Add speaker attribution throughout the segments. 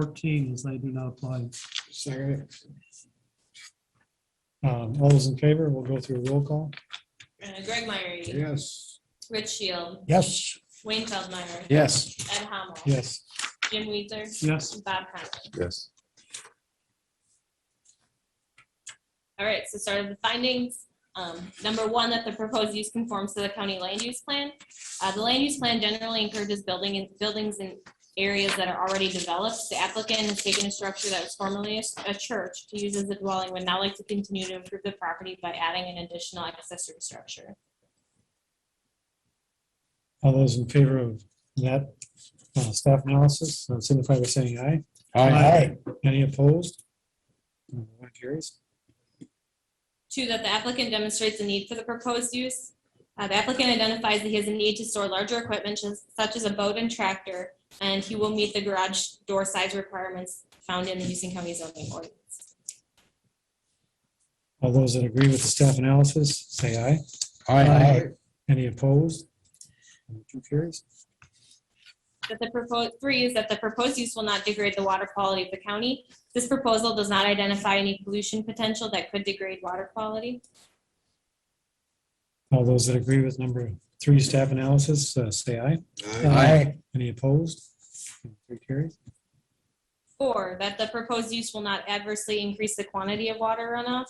Speaker 1: fourteen as they do not apply.
Speaker 2: Second it. Um, All those in favor, we'll go through a roll call.
Speaker 3: Uh, Greg Myrie,
Speaker 2: Yes.
Speaker 3: Rich Shield,
Speaker 2: Yes.
Speaker 3: Wayne Feldmeyer.
Speaker 2: Yes.
Speaker 3: Ed Hamel.
Speaker 2: Yes.
Speaker 3: Jim Weezer.
Speaker 1: Yes,
Speaker 3: Bob Conley.
Speaker 4: Yes.
Speaker 3: All right, so start of the findings. Um, number one, that the proposed use conforms to the county land use plan. Uh, the land use plan generally encourages building and buildings in areas that are already developed. The applicant has taken a structure that was formerly a s- a church to use as a dwelling, would now like to continue to improve the property by adding an additional accessory structure.
Speaker 2: All those in favor of that uh, staff analysis, uh, signify by saying aye. Any opposed? Uh, That carries.
Speaker 3: Two, that the applicant demonstrates a need for the proposed use. Uh, The applicant identifies that he has a need to store larger equipment just- such as a boat and tractor, and he will meet the garage door size requirements found in the Houston County zoning ordinance.
Speaker 2: All those that agree with the staff analysis, say aye. Any opposed? Motion carries.
Speaker 3: That the proposed, three is that the proposed use will not degrade the water quality of the county. This proposal does not identify any pollution potential that could degrade water quality.
Speaker 2: All those that agree with number three staff analysis, uh, say aye. Any opposed? Motion carries.
Speaker 3: Four, that the proposed use will not adversely increase the quantity of water runoff.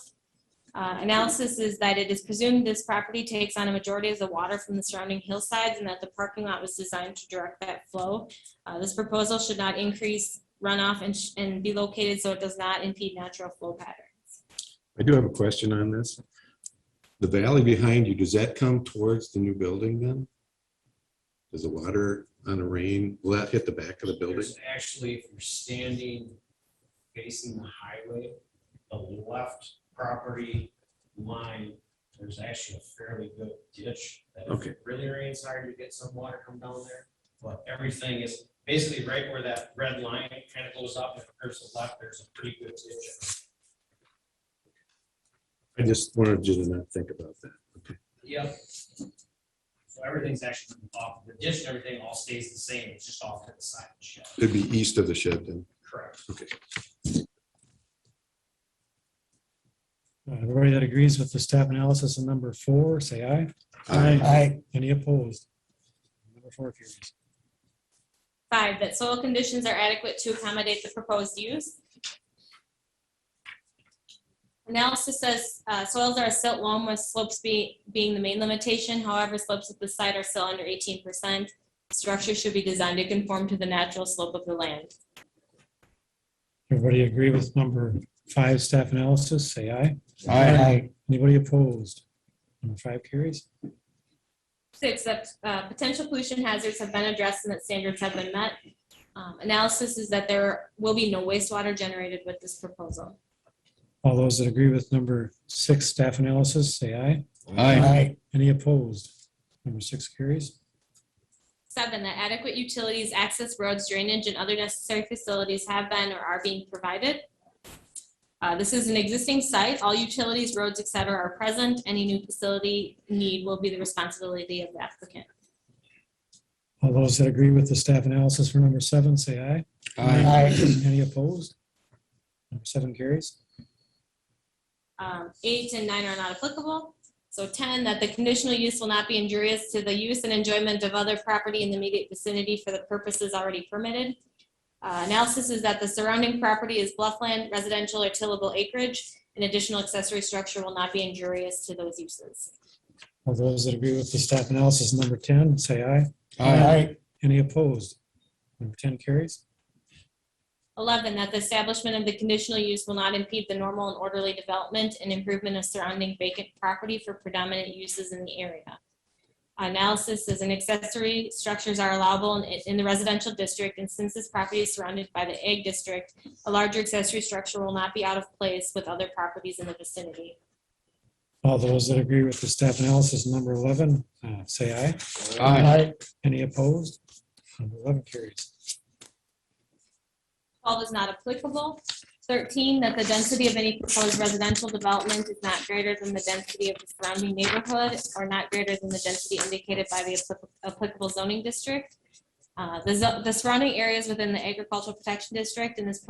Speaker 3: Uh, Analysis is that it is presumed this property takes on a majority of the water from the surrounding hillsides and that the parking lot was designed to direct that flow. Uh, This proposal should not increase runoff and sh- and be located so it does not impede natural flow patterns.
Speaker 4: I do have a question on this. The valley behind you, does that come towards the new building then? Does the water on the rain, will that hit the back of the building?
Speaker 5: There's actually, if you're standing facing the highway, the left property line, there's actually a fairly good ditch. that if
Speaker 4: Okay.
Speaker 5: it Really rains hard, you get some water come down there, but everything is basically right where that red line kind of goes up and curves to the left, there's a pretty good ditch.
Speaker 4: I just wanted you to not think about that. Okay.
Speaker 5: Yep. So everything's actually off, the ditch and everything all stays the same, it's just off to the side of the shed.
Speaker 4: It'd be east of the shed then.
Speaker 5: Correct.
Speaker 2: Uh, Everybody that agrees with the staff analysis on number four, say aye. Any opposed? Number four carries.
Speaker 3: Five, that soil conditions are adequate to accommodate the proposed use. Analysis says uh, soils are a silt loam with slopes be- being the main limitation. However, slopes at the site are still under 18%. Structure should be designed to conform to the natural slope of the land.
Speaker 2: Everybody agree with number five staff analysis, say aye. Anybody opposed? Number five carries.
Speaker 3: Six, that uh, potential pollution hazards have been addressed and that standards have been met. Um, Analysis is that there will be no wastewater generated with this proposal.
Speaker 2: All those that agree with number six staff analysis, say aye. Any opposed? Number six carries.
Speaker 3: Seven, that adequate utilities, access roads, drainage, and other necessary facilities have been or are being provided. Uh, This is an existing site. All utilities, roads, et cetera, are present. Any new facility need will be the responsibility of the applicant.
Speaker 2: All those that agree with the staff analysis for number seven, say aye. Any opposed? Number seven carries.
Speaker 3: Um, Eight and nine are not applicable. So 10, that the conditional use will not be injurious to the use and enjoyment of other property in the immediate vicinity for the purposes already permitted. Uh, Analysis is that the surrounding property is bluffland, residential or tillable acreage. An additional accessory structure will not be injurious to those uses.
Speaker 2: All those that agree with the staff analysis number ten, say aye. Any opposed? Number ten carries.
Speaker 3: 11, that the establishment of the conditional use will not impede the normal and orderly development and improvement of surrounding vacant property for predominant uses in the area. Analysis is an accessory structures are allowable in- in the residential district, and since this property is surrounded by the egg district, a larger accessory structure will not be out of place with other properties in the vicinity.
Speaker 2: All those that agree with the staff analysis number eleven, uh, say aye. Any opposed? Number 11 carries.
Speaker 3: 12 is not applicable. 13, that the density of any proposed residential development is not greater than the density of the surrounding neighborhood or not greater than the density indicated by the appli- applicable zoning district. Uh, The zo- the surrounding areas within the agricultural protection district in this